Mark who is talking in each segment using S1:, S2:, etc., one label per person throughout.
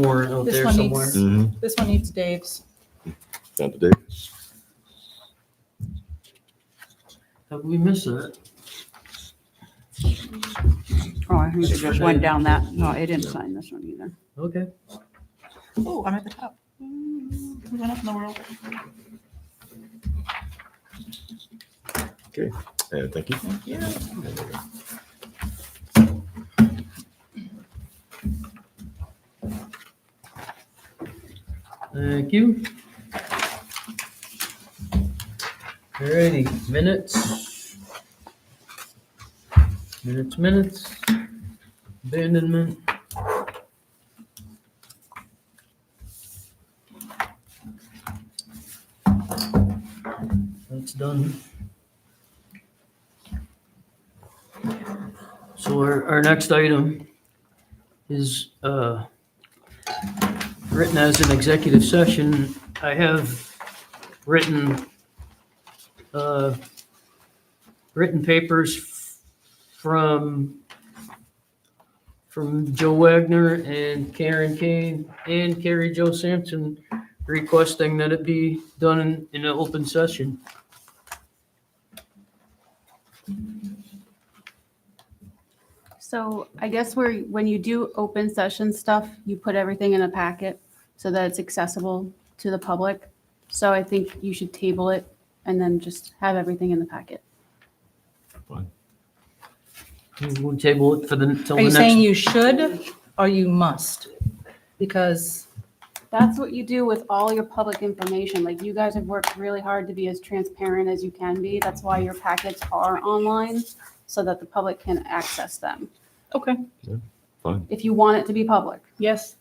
S1: Warrant out
S2: This
S1: there
S2: one needs-
S1: somewhere.
S3: Mm-hmm.
S2: This one needs Dave's.
S3: Down to Dave.
S1: Have we missed that?
S4: Oh, I think there's just one down that, no, I didn't sign this one either.
S1: Okay.
S2: Oh, I'm at the top. Mm, Who went up in the world?
S3: And thank you.
S2: Thank you.
S1: Thank you. Alrighty, minutes. Minutes, minutes. Abandonment. That's done. So our, our next item is, uh, written as an executive session. I have written, uh, written papers f- from, from Joe Wagner and Karen Kane and Carrie Joe Sampson requesting that it be done in, in an open session.
S5: So I guess where, when you do open session stuff, you put everything in a packet so that it's accessible to the public. So I think you should table it and then just have everything in the packet.
S1: We'll table it for the, till
S2: Are
S1: the
S2: you saying
S1: next.
S2: you should or you must? Because,
S5: That's what you do with all your public information. Like you guys have worked really hard to be as transparent as you can be. That's why your packets are online so that the public can access them.
S2: okay,
S3: Fine.
S5: If you want it to be public,
S2: yes.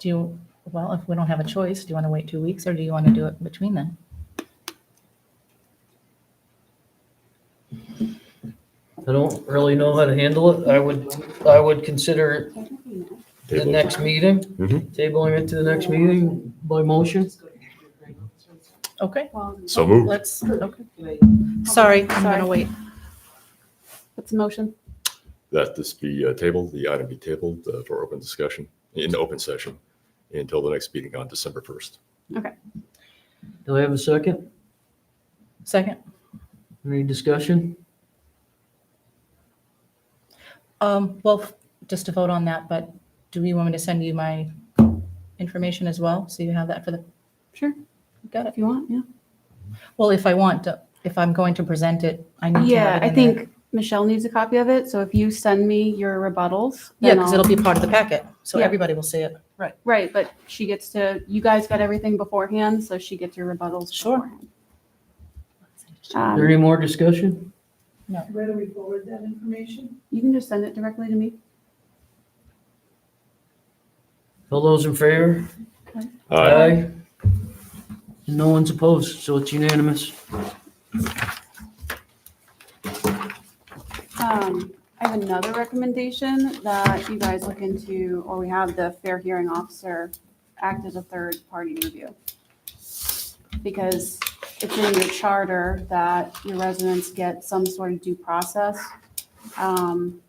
S2: Do you, well, if we don't have a choice, do you want to wait two weeks or do you want to do it between then?
S1: I don't really know how to handle it. I would, I would consider it the
S3: Table.
S1: next meeting,
S3: Mhm.
S1: tabling it to the next meeting by motion.
S2: Okay,
S3: So moved.
S2: let's, okay. Sorry, I'm going
S5: Sorry.
S2: to wait.
S5: it's a motion.
S3: That this be uh, tabled, the item be tabled uh, for open discussion, in open session, until the next meeting on December 1st.
S1: Do I have a second?
S2: Second.
S1: Any discussion?
S2: Um, well, f- just to vote on that, but do you want me to send you my information as well? So you have that for the,
S5: Sure,
S2: got it.
S5: if you want, yeah.
S2: Well, if I want to, if I'm going to present it, I need to
S5: Yeah,
S2: have it
S5: I
S2: in there.
S5: think Michelle needs a copy of it, so if you send me your rebuttals.
S2: Yeah,
S5: then
S2: because
S5: I'll-
S2: it'll be part of the packet, so
S5: Yeah.
S2: everybody will see it. Right.
S5: Right, but she gets to, you guys got everything beforehand, so she gets your rebuttals
S2: Sure.
S5: beforehand.
S1: Is there
S5: Um,
S1: any more discussion?
S6: Where do we forward that information?
S5: You can just send it directly to me.
S1: All those in favor?
S3: Aye.
S1: No one's opposed, so it's unanimous.
S5: Um, I have another recommendation that you guys look into, or we have the fair hearing officer act as a third party review. Because it's in your charter that your residents get some sort of due process. Um,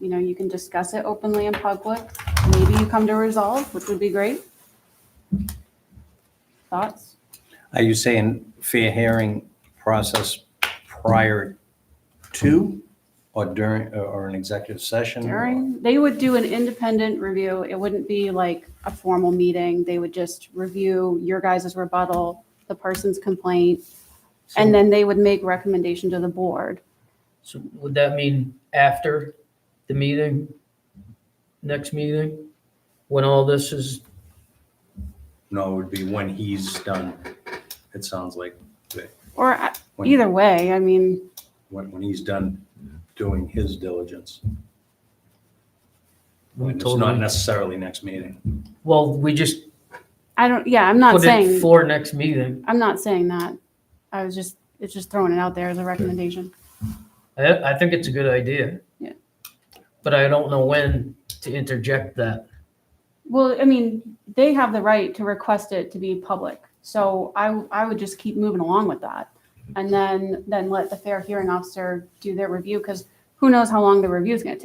S5: You know, you can discuss it openly in public. Maybe you come to resolve, which would be great. Thoughts?
S7: Are you saying fair hearing process prior to or during, or- or an executive session?
S5: During, they would do an independent review. It wouldn't be like a formal meeting. They would just review your guys' rebuttal, the person's complaint, and then they would make recommendation to the board.
S1: So would that mean after the meeting? Next meeting? When all this is,
S7: No, it would be when he's done, it sounds like.
S5: Or uh,
S7: when-
S5: either way, I mean,
S7: When, when he's done doing his diligence.
S1: we
S7: It's not
S1: totally,
S7: necessarily next meeting.
S1: well, we just
S5: I don't, yeah, I'm not
S1: put it
S5: saying,
S1: for next meeting.
S5: I'm not saying that. I was just, it's just throwing it out there as a recommendation.
S1: I, I think it's a good idea.
S5: Yeah.
S1: But I don't know when to interject that.
S5: Well, I mean, they have the right to request it to be public. So I, I would just keep moving along with that. And then, then let the fair hearing officer do their review because who knows how long the review's gonna take?